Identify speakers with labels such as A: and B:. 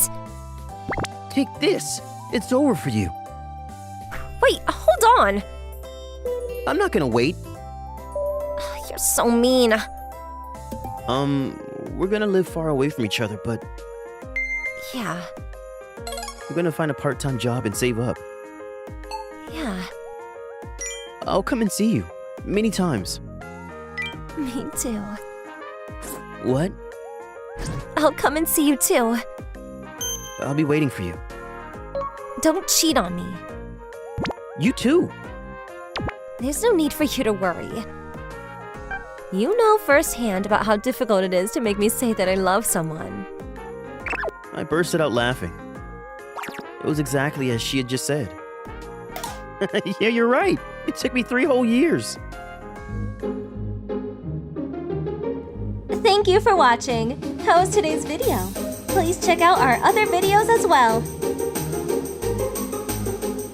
A: Take this. It's over for you.
B: Wait, hold on.
A: I'm not gonna wait.
B: You're so mean.
A: Um, we're gonna live far away from each other, but
B: Yeah,
A: we're gonna find a part time job and save up.
B: yeah,
A: I'll come and see you. Many times.
B: me too.
A: What?
B: I'll come and see you too.
A: I'll be waiting for you.
B: Don't cheat on me.
A: You too.
B: There's no need for you to worry. You know firsthand about how difficult it is to make me say that I love someone.
A: I bursted out laughing. It was exactly as she had just said. yeah, you're right. It took me three whole years.
C: Thank you for watching. How was today's video? Please check out our other videos as well.